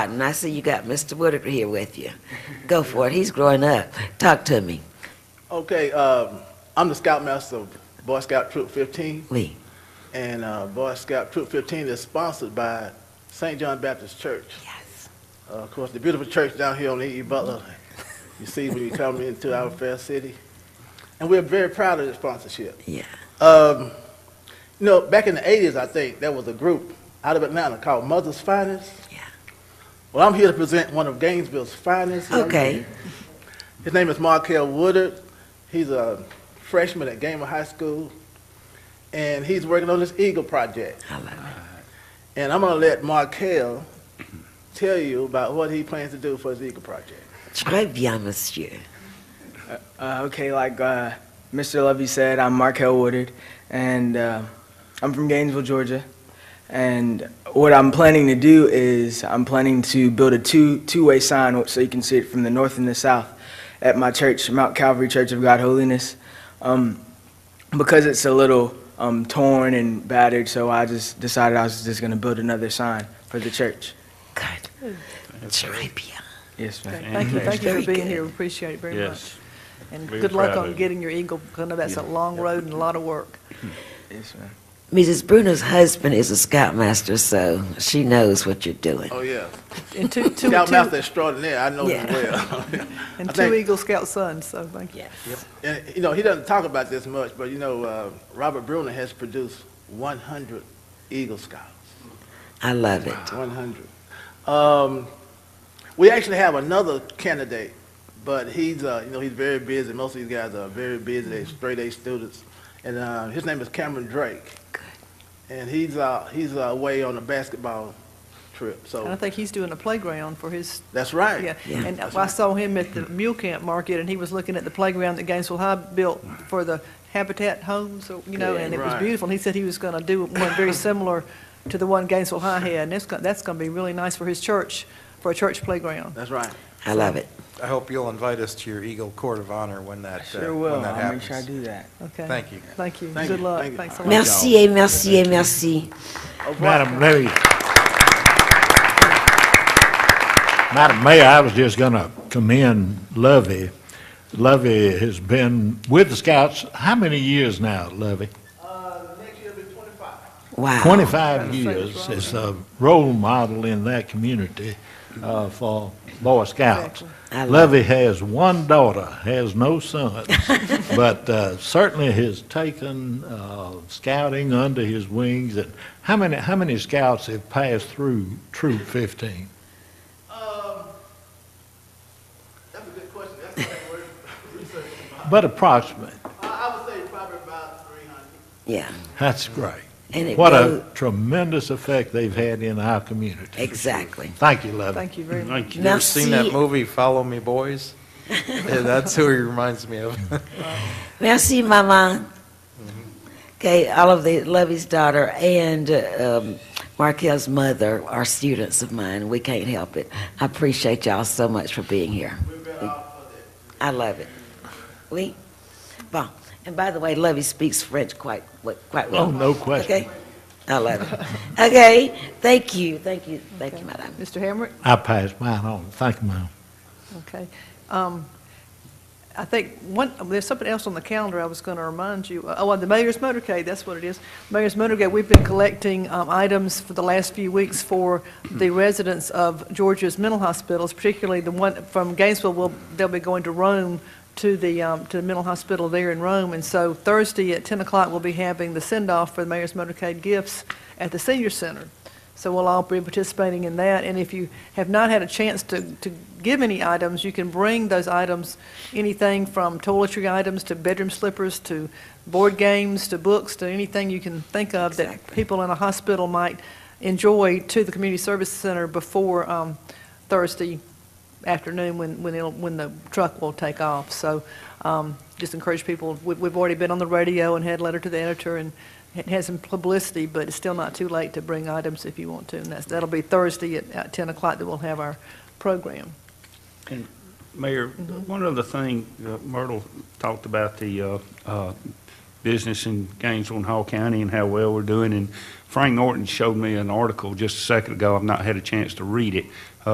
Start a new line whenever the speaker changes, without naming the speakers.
And I see you got Mr. Woodard here with you. Go for it. He's growing up. Talk to me.
Okay, um, I'm the scoutmaster of Boy Scout Troop 15,
We.
and uh, Boy Scout Troop 15 is sponsored by St. John Baptist Church.
Yes.
Uh, Of course, the beautiful church down here on E.E. Butler, you see when you come into our fair city. And we're very proud of the sponsorship.
Yeah.
Um, You know, back in the 80s, I think, there was a group out of Atlanta called Mother's Finest.
Yeah.
Well, I'm here to present one of Gainesville's finest.
Okay.
His name is Markel Woodard. He's a freshman at Gamer High School, and he's working on this Eagle project.
I love it.
And I'm gonna let Markel tell you about what he plans to do for his Eagle project.
Très bien, monsieur.
Uh, okay, like uh, Mr. Levy said, I'm Markel Woodard, and uh, I'm from Gainesville, Georgia. And what I'm planning to do is I'm planning to build a two two-way sign so you can see it from the north and the south at my church, Mount Calvary Church of God Holiness. Um, because it's a little um, torn and battered, so I just decided I was just going to build another sign for the church.
Good. Très bien.
Yes, ma'am.
Okay, Thank you, thank you
Very
for being here,
good.
We appreciate it very much.
Yes.
And
We were
good luck
proud
on
of you.
getting your Eagle, because I know that's a long road and a lot of work.
Yes, ma'am.
Mrs. Bruno's husband is a scoutmaster, so she knows what you're doing.
Oh yeah,
And two, two,
scoutmaster
two,
extraordinaire. I know him
Yeah.
well. I
and two
think-
Eagle Scout sons, so thank you.
and you know, he doesn't talk about this much, but you know, uh, Robert Bruner has produced 100 Eagle Scouts.
I love it.
100. Um, we actually have another candidate, but he's, uh, you know, he's very busy. Most of these guys are very busy, they're straight A students. And uh, his name is Cameron Drake.
Good.
And he's, uh, he's uh, away on a basketball trip.
And I
So
think he's doing a playground for his,
that's right.
yeah.
Yeah.
And I saw him at the Mule Camp Market, and he was looking at the playground that Gainesville High built for the Habitat Homes, or, you know, and it was
Right.
beautiful. And he said he was going to do one very similar to the one Gainesville High had, and it's, go- that's going to be really nice for his church, for a church playground.
That's right.
I love it.
I hope you'll invite us to your Eagle Court of Honor when that, uh,
Sure will.
when that
I'll make sure I
happens.
do that.
Okay.
Thank you.
Thank you.
Thank
Good
you.
luck.
Thank you.
Thanks a lot.
Merci, et merci, et merci.
Au revoir.
Madam Levy. Madam Mayor, I was just going to commend Lovey. Lovey has been with the Scouts, how many years now, Lovey?
Uh, next year will be 25.
Wow.
25 years as a role model in that community uh, for Boy Scouts.
I love
Lovey has one daughter, has no sons, but uh, certainly has taken uh, scouting under his wings. And how many, how many scouts have passed through Troop 15?
Um, that's a good question. That's the right word. Research.
But approximately.
I, I would say probably about 300.
Yeah.
That's great.
And it
What
goes,
a tremendous effect they've had in our community.
exactly.
Thank you, Lovey.
Thank you very much.
You ever seen that
Merci.
movie, Follow Me Boys? Yeah, That's who he reminds me of.
Merci, Maman. Okay, all of the Lovey's daughter and uh, um, Markel's mother are students of mine. We can't help it. I appreciate y'all so much for being here. I love it. Oui. Bon. And by the way, Lovey speaks French quite wa- quite well.
Oh, no question.
Okay. I love it. Okay. Thank you. Thank you. Thank you, Madam.
Mr. Hamrick?
I pass mine on. Thank you, ma'am.
Okay. Um, I think one, there's something else on the calendar I was going to remind you. Oh, well, the Mayor's Motorcade, that's what it is. Mayor's Motorcade, we've been collecting um, items for the last few weeks for the residents of Georgia's mental hospitals, particularly the one from Gainesville, will, they'll be going to Rome, to the, um, to the mental hospital there in Rome. And so Thursday at 10 o'clock, we'll be having the send-off for the Mayor's Motorcade gifts at the senior center. So we'll all be participating in that, and if you have not had a chance to, to give any items, you can bring those items, anything from toiletry items to bedroom slippers to board games to books to anything you can think of that
Exactly.
people in a hospital might enjoy to the community service center before um, Thursday afternoon when, when it'll, when the truck will take off. So um, just encourage people, we- we've already been on the radio and had a letter to the editor and it has some publicity, but it's still not too late to bring items if you want to. And that's, that'll be Thursday at- at 10 o'clock that we'll have our program.
Mayor, one other thing, uh, Myrtle talked about the uh, uh, business in Gainesville and Hall County and how well we're doing, and Frank Norton showed me an article just a second ago, I've not had a chance to read it,